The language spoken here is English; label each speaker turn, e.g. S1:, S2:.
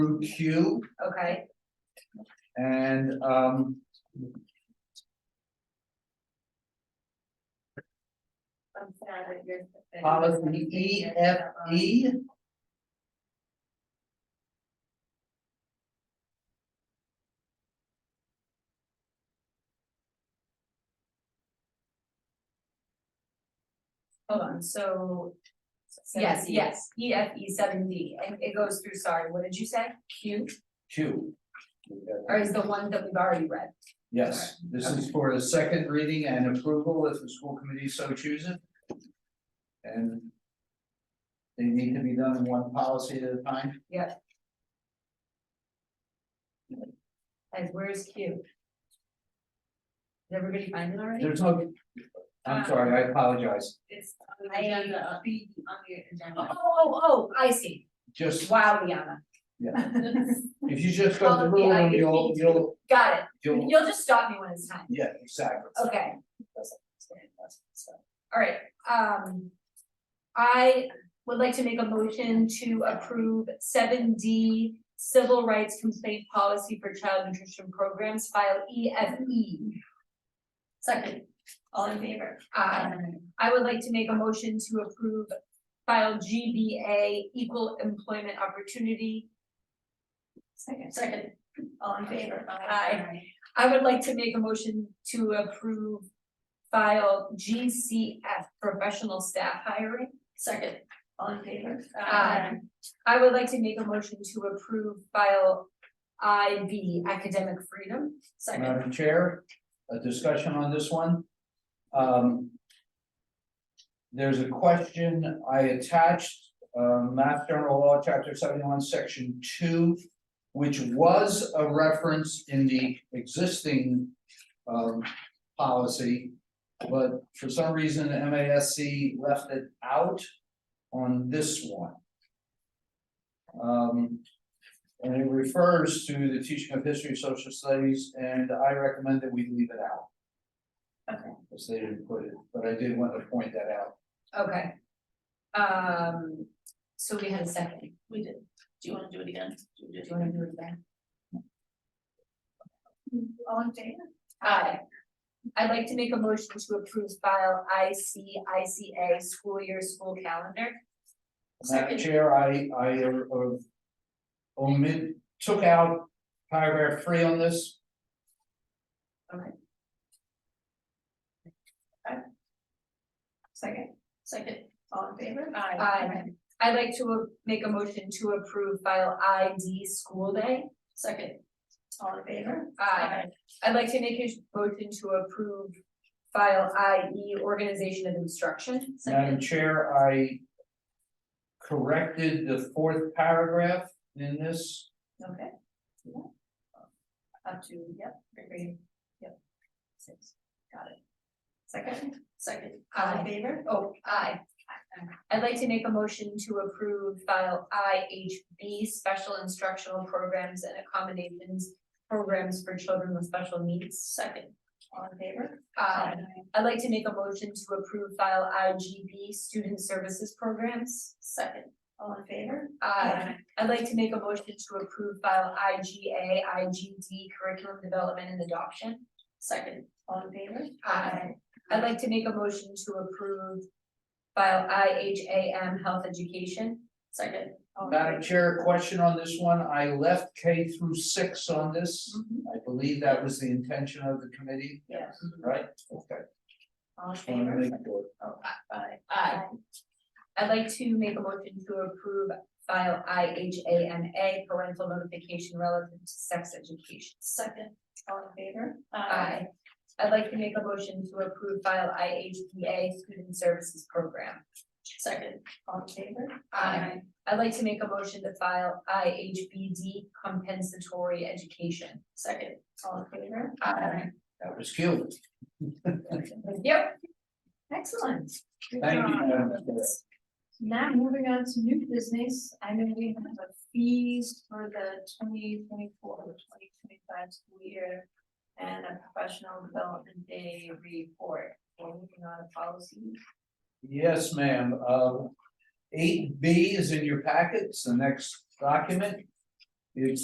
S1: through Q
S2: okay,
S1: and um.
S2: I'm sad that you're.
S1: Policy E F
S2: Uh,
S1: E.
S2: Hold on, so, yes, yes, E F E seven D, and it goes through, sorry, what did you say? Q,
S1: Q.
S2: or is the one that we've already read?
S1: Yes, this is for the second reading and approval if the school committee so chooses. And. They need to be done one policy at a time.
S2: And where's Q? Did everybody find it already?
S1: There's no. I'm sorry, I apologize.
S2: It's on
S3: the agenda. uh,
S2: B on the agenda. Oh, oh, oh, I see,
S1: Just,
S2: wow, Liana,
S1: if you just go to the room, you'll, you'll,
S2: got it,
S1: you'll,
S2: you'll just stop me when it's time,
S1: yeah, exactly.
S2: okay. Alright, um, I would like to make a motion to approve seven D civil rights complaint policy for child nutrition programs file E F E.
S3: Second, all in favor?
S2: Uh, I would like to make a motion to approve file G B A equal employment opportunity.
S3: Second. Second, all in favor?
S2: Aye. I would like to make a motion to approve file G C F professional staff hiring.
S3: Second, all in favor?
S2: Aye. Um, I would like to make a motion to approve file I B academic freedom.
S3: Second,
S1: Madam Chair, a discussion on this one. Um. There's a question I attached, uh, Mass General Law, Chapter seventy-one, Section two, which was a reference in the existing, um, policy. But for some reason, MASC left it out on this one. Um, and it refers to the teaching of history, social studies, and I recommend that we leave it out.
S3: Okay.
S1: Because they didn't put it, but I did want to point that out.
S2: Okay. Um, so we had a second.
S3: we did, do you wanna do it again? Do you
S2: Do
S3: do
S2: you wanna do it again?
S3: it? All in favor?
S2: Aye. I'd like to make a motion to approve file I C I C A school year, school calendar.
S1: Madam
S3: Second.
S1: Chair, I, I, uh, omit, took out paragraph three on this.
S3: Second, second, all in favor?
S2: Aye. I'd like to uh, make a motion to approve file I D school day.
S3: Second, all in favor?
S2: Aye. I'd like to make a motion to approve file I E organization of instruction.
S1: Madam
S3: Second,
S1: Chair, I corrected the fourth paragraph in this.
S3: okay. Yeah. Uh, Up to, yep, agree, yep. Six, got it. Second, second, all
S2: Aye.
S3: in favor?
S2: Oh, aye. I'd like to make a motion to approve file I H B special instructional programs and accommodations programs for children with special needs.
S3: Second, all in favor?
S2: Aye. I'd like to make a motion to approve file I G B student services programs.
S3: Second, all in favor?
S2: Aye. I'd like to make a motion to approve file I G A, I G D curriculum development and adoption.
S3: Second, all in favor?
S2: Aye. I'd like to make a motion to approve file I H A M health education.
S3: Second. all in
S1: Madam
S3: favor?
S1: Chair, question on this one, I left K through six on
S3: Mm-hmm.
S1: this. I believe that was the intention of the committee,
S3: Yes,
S1: right? Okay.
S3: all in
S1: Just wanted to
S3: favor?
S1: make sure.
S3: Oh, aye.
S2: Aye. I'd like to make a motion to approve file I H A M A parental notification relative to sex education.
S3: Second, all in favor?
S2: Aye. I'd like to make a motion to approve file I H P A student services program.
S3: Second, all in favor?
S2: Aye. I'd like to make a motion to file I H B D compensatory education.
S3: Second, all in favor?
S1: That was cute.
S2: Yep,
S3: Excellent. Good
S1: Thank you,
S3: job.
S1: Madam Chair.
S3: Now, moving on to new business, I know we have the fees for the twenty twenty-four, twenty twenty-five school year. And a professional development day report, we're moving on to policy.
S1: Yes, ma'am, Um, uh, eight B is in your packets, the next document. It's